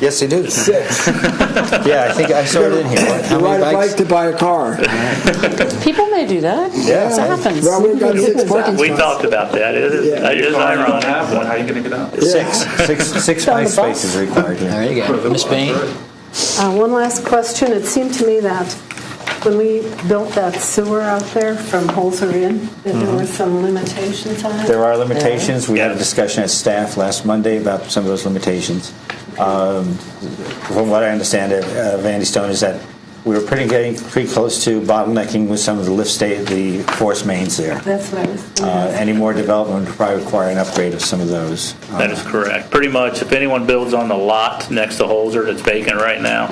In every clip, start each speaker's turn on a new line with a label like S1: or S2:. S1: Yes, they do.
S2: Six.
S1: Yeah, I think I saw it in here. How
S2: You ride
S1: many
S2: a
S1: bikes?
S2: bike to buy a car.
S3: People may do that.
S1: Yeah.
S3: It happens.
S2: Well, we've got six parking
S4: We
S2: spots.
S4: talked about that. It is,
S2: Yeah.
S4: it is
S5: don't
S4: ironic.
S5: have one, how are you going to get out?
S1: Six.
S6: Six, six
S3: Down
S6: bike
S3: the bus.
S6: spaces required here.
S1: There you go. Miss Bain?
S7: Uh, One last question. It seemed to me that when we built that sewer out there from Holzer Inn, that there were some limitations on it.
S6: There are limitations. We had a discussion at staff last Monday about some of those limitations. Um, From what I understand of of Andy Stone is that we were pretty getting, pretty close to bottlenecking with some of the lift state, the force mains there.
S7: That's what I was
S6: Uh, Any more development would probably require an upgrade of some of those.
S4: That is correct. Pretty much, if anyone builds on the lot next to Holzer that's vacant right now,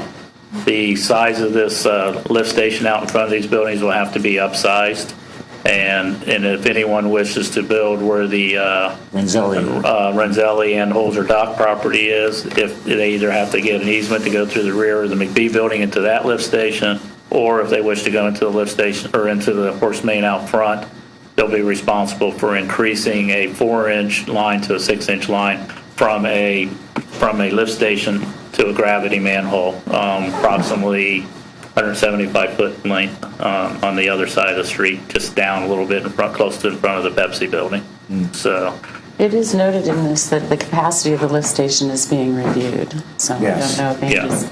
S4: the size of this uh, lift station out in front of these buildings will have to be upsized. And, and if anyone wishes to build where the uh,
S6: Renzelli.
S4: uh, Renzelli and Holzer Dock property is, if they either have to get an easement to go through the rear of the McBee building into that lift station, or if they wish to go into the lift station, or into the horse main out front, they'll be responsible for increasing a four-inch line to a six-inch line from a, from a lift station to a gravity manhole, um, approximately 175-foot length um, on the other side of the street, just down a little bit in front, close to in front of the Pepsi building. So
S3: It is noted in this that the capacity of the lift station is being reviewed. So
S6: Yes.
S3: I don't know if
S4: Yeah.
S3: Andy's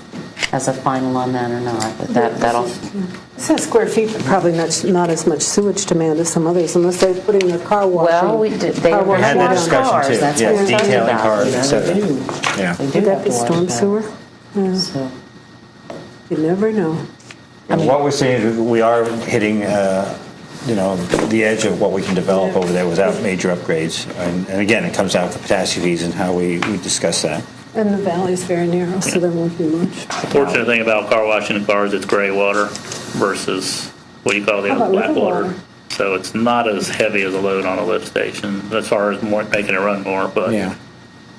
S3: has a final on that or not, but that, that'll,
S7: It says square feet, but probably not, not as much sewage demand as some others unless they're putting the car washing.
S3: well, we did, they
S7: Car
S3: were
S7: wash
S6: had that
S7: down.
S3: on
S6: discussion
S3: cars.
S6: too.
S3: That's
S6: Yeah,
S3: what we're talking
S6: detailing
S3: about.
S6: cars,
S3: You know,
S6: et cetera.
S3: They do.
S6: Yeah.
S3: They do
S7: Would that
S3: have to
S7: be
S3: wash
S7: storm
S3: that.
S7: sewer?
S3: So-
S7: You never know.
S6: And what we're seeing is we are hitting, uh, you know, the edge of what we can develop over there without major upgrades. And, and again, it comes down to catastrophes and how we, we discuss that.
S7: And the valley's very narrow, so there won't be much.
S4: Fortunate thing about car washing the cars, it's gray water versus what do you call the
S7: How
S4: other
S7: about
S4: black
S7: river
S4: water.
S7: water?
S4: So it's not as heavy as a load on a lift station as far as more, making it run more, but
S6: Yeah.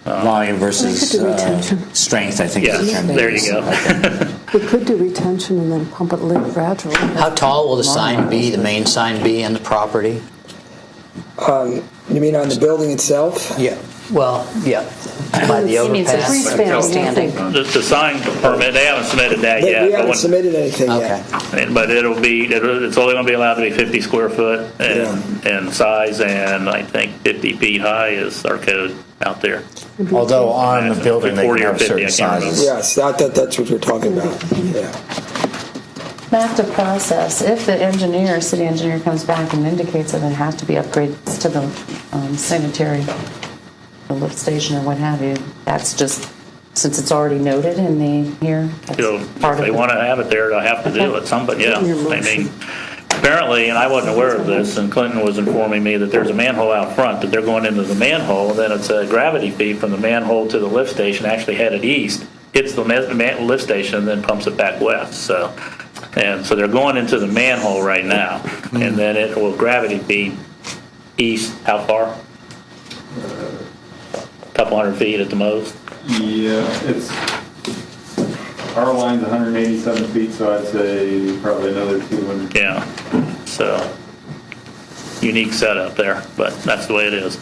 S6: Volume versus
S7: We could do
S6: uh,
S7: retention.
S6: strength, I think. is the
S4: Uh, yes,
S6: term.
S4: there you go.
S7: We could do retention and then pump it later gradually.
S1: How tall will the sign be, the main sign be in the property?
S2: Um, You mean on the building itself?
S1: Yeah. Well, yeah, by the
S3: He means a
S1: overpass.
S3: free span standing.
S4: The, the sign permit, they haven't submitted that
S2: But
S4: yet.
S2: we
S4: but
S2: haven't
S4: when-
S2: submitted anything
S1: Okay.
S2: yet.
S4: But it'll be, it'll- it's only going to be allowed to be 50 square foot and, and size, and I think 50 feet high is our code out there.
S6: Although on the building, they can
S4: 40 or
S6: have
S4: 50,
S6: certain
S4: I can't remember.
S6: sizes.
S2: Yes, that, that, that's what we're talking about. Yeah.
S3: Back to process. If the engineer, city engineer comes back and indicates that there have to be upgrades to the um, sanitary, the lift station or what have you, that's just, since it's already noted in the, here, that's
S4: you know,
S3: part of
S4: if they
S3: it.
S4: want to have it there, they'll have to do it, somebody, yeah. I mean, apparently, and I wasn't aware of this, and Clinton was informing me that there's a manhole out front, that they're going into the manhole, and then it's a gravity feed from the manhole to the lift station, actually headed east, hits the ma- ma- lift station, and then pumps it back west, so. And so they're going into the manhole right now, and then it will gravity feed east, how far? Couple hundred feet at the most.
S5: Yeah, uh, it's, our line's 187 feet, so I'd say probably another 200.
S4: Yeah, so unique setup there, but that's the way it is.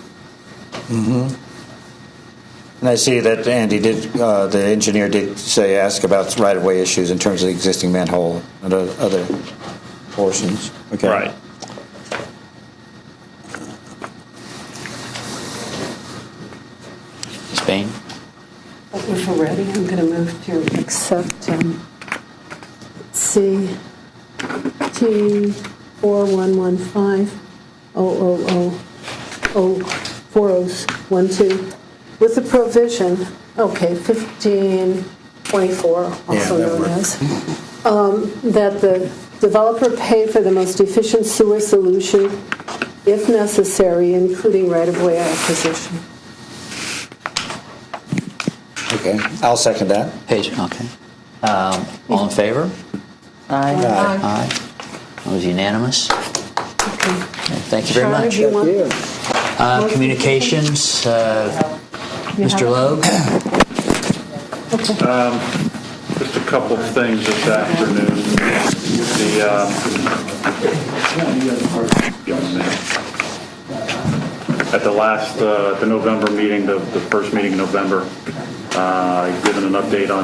S6: And I see that Andy did, uh, the engineer did say, ask about right-of-way issues in terms of the existing manhole and o- other portions. Okay.
S4: Right.
S1: Spain?
S7: If we're ready, I'm going to move to accept um, CT oh, 4115-000-04012 with the provision, okay, 1524,
S6: Yeah,
S7: also
S6: that
S7: known
S6: works.
S7: as, um, that the developer pay for the most efficient sewer solution if necessary, including right-of-way acquisition.
S6: Okay. I'll second that.
S1: Page, okay. Um, All in favor?
S3: Aye.
S1: Aye. That was unanimous.
S7: Okay.
S1: Thank you very
S7: Charlie, do
S1: much.
S7: you want-
S2: Yeah.
S1: Uh, Communications, uh,
S7: you have it?
S1: Mr. Logue?
S5: Just a couple of things this afternoon. The, um, at the last, uh, the November meeting, the the first meeting in November, uh, given an update on